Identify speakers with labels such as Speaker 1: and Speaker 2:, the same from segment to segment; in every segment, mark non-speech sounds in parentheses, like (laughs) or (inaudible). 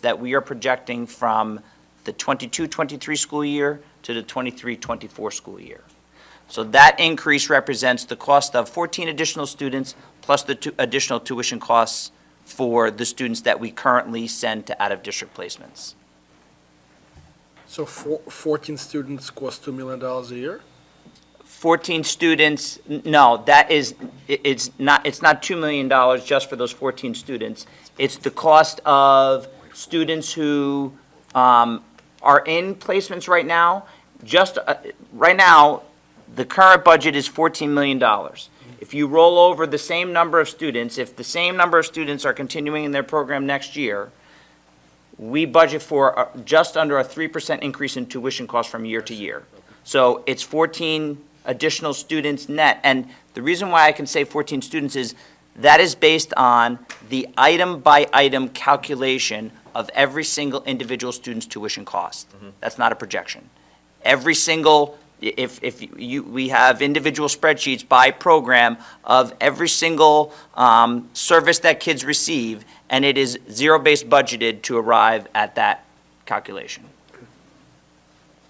Speaker 1: that we are projecting from the 22-23 school year to the 23-24 school year. So that increase represents the cost of 14 additional students plus the tu- additional tuition costs for the students that we currently send to out-of-district placements.
Speaker 2: So four- 14 students cost $2 million a year?
Speaker 1: 14 students, n- no, that is, i- it's not, it's not $2 million just for those 14 students. It's the cost of students who um, are in placements right now. Just, uh, right now, the current budget is $14 million. If you roll over the same number of students, if the same number of students are continuing in their program next year, we budget for uh, just under a 3% increase in tuition costs from year to year. So it's 14 additional students net. And the reason why I can say 14 students is that is based on the item-by-item calculation of every single individual student's tuition cost. That's not a projection. Every single, i- if, if you, we have individual spreadsheets by program of every single um, service that kids receive, and it is zero-based budgeted to arrive at that calculation.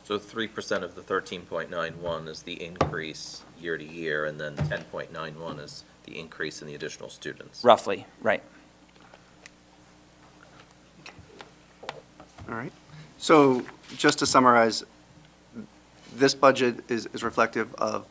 Speaker 3: So three percent of the thirteen point nine one is the increase year to year, and then ten point nine one is the increase in the additional students.
Speaker 1: Roughly, right.
Speaker 4: All right. So just to summarize, this budget is, is reflective of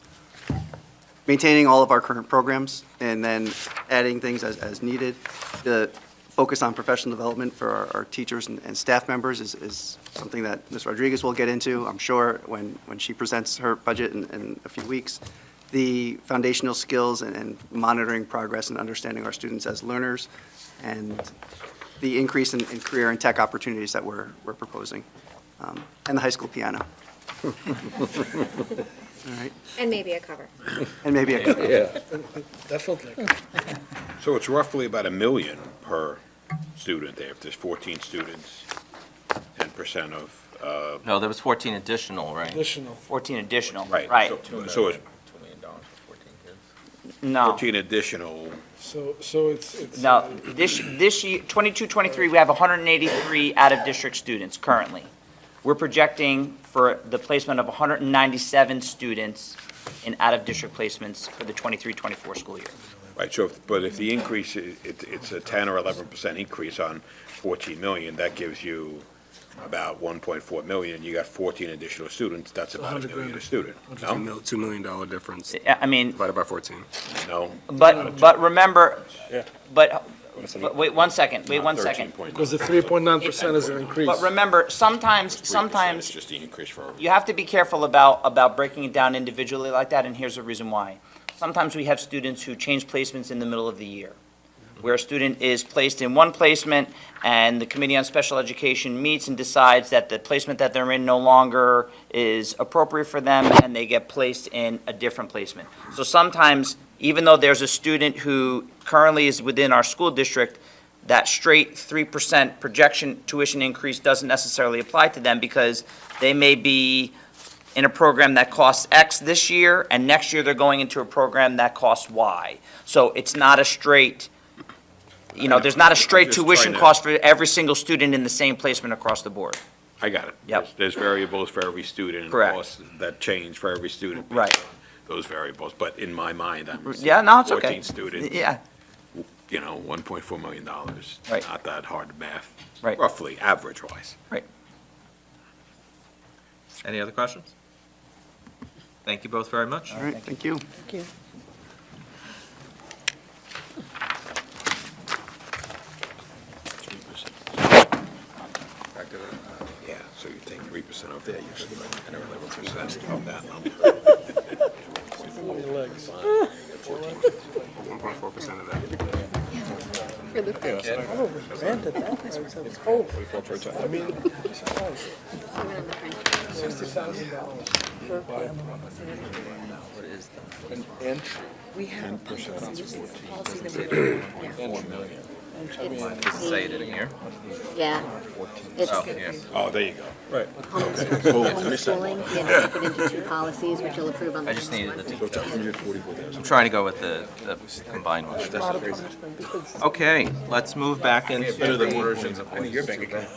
Speaker 4: maintaining all of our current programs and then adding things as, as needed. The focus on professional development for our, our teachers and, and staff members is, is something that Ms. Rodriguez will get into, I'm sure, when, when she presents her budget in, in a few weeks. The foundational skills and, and monitoring progress and understanding our students as learners and the increase in, in career and tech opportunities that we're, we're proposing. Um, And the high school piano. (laughs) All right,
Speaker 5: And maybe a cover.
Speaker 4: and maybe a
Speaker 2: Definitely.
Speaker 6: Hmm.
Speaker 7: So it's roughly about a million per student there, if there's 14 students, 10% of, uh,
Speaker 3: No, there was fourteen additional, right?
Speaker 2: Additional.
Speaker 1: 14 additional,
Speaker 7: right.
Speaker 1: right.
Speaker 7: so- So it's
Speaker 3: Two million dollars for fourteen kids.
Speaker 1: No,
Speaker 7: 14 additional,
Speaker 2: So, so it's, it's.
Speaker 1: no, this, this year, 22, 23, we have 183 out-of-district students currently. We're projecting for the placement of 197 students in out-of-district placements for the 23, 24 school year.
Speaker 7: right, so, if- but if the increase, i- it- it's a 10 or 11% increase on 14 million, that gives you about 1.4 million, you got 14 additional students, that's about a
Speaker 6: 100
Speaker 7: million a
Speaker 6: grand.
Speaker 7: student,
Speaker 6: It's a
Speaker 7: no?
Speaker 6: mil- $2 million difference
Speaker 1: I I mean,
Speaker 6: divided by 14.
Speaker 7: No?
Speaker 1: But, but remember,
Speaker 7: Yeah.
Speaker 1: but, but wait one second, wait one second.
Speaker 7: 13.9.
Speaker 2: Because the 3.9% is an increase.
Speaker 1: But remember, sometimes,
Speaker 7: 3% is
Speaker 1: sometimes
Speaker 7: just the increase for.
Speaker 1: you have to be careful about, about breaking it down individually like that, and here's the reason why. Sometimes we have students who change placements in the middle of the year, where a student is placed in one placement, and the Committee on Special Education meets and decides that the placement that they're in no longer is appropriate for them, and they get placed in a different placement. So sometimes, even though there's a student who currently is within our school district, that straight 3% projection tuition increase doesn't necessarily apply to them because they may be in a program that costs X this year, and next year they're going into a program that costs Y. So it's not a straight, you know, there's not a straight
Speaker 7: I'm just
Speaker 1: tuition
Speaker 7: trying to-
Speaker 1: cost for every single student in the same placement across the board.
Speaker 7: I got it.
Speaker 1: Yep.
Speaker 7: There's- There's variables for every student. and
Speaker 1: Correct.
Speaker 7: costs That change for every student. based
Speaker 1: Right.
Speaker 7: on Those variables, but in my mind, I'm.
Speaker 1: Yeah, no, it's okay.
Speaker 7: Fourteen students.
Speaker 1: Yeah,
Speaker 7: You know, one point four million dollars.
Speaker 1: Right.
Speaker 7: Not that hard math.
Speaker 1: Right.
Speaker 7: Roughly, average wise.
Speaker 1: right.
Speaker 3: Any other questions? Thank you both very much.
Speaker 4: All right, thank you.
Speaker 7: Yeah, so you take three percent off there, you could like another eleven percent off that number.
Speaker 6: 1.4% of that.
Speaker 8: We have a policy, this is the policy that we, yeah.
Speaker 3: Does it say it Oh, in here?
Speaker 5: Yeah. It's
Speaker 3: Oh, yeah.
Speaker 7: Oh, there you go. Right.
Speaker 5: homeschooling, yeah, put into two policies, which you'll approve on the
Speaker 3: I just
Speaker 5: next
Speaker 3: needed
Speaker 5: one.
Speaker 3: the details. I'm trying to go with the, the combined one. Okay, let's move back into the.
Speaker 6: Versions of what
Speaker 7: Your bank account.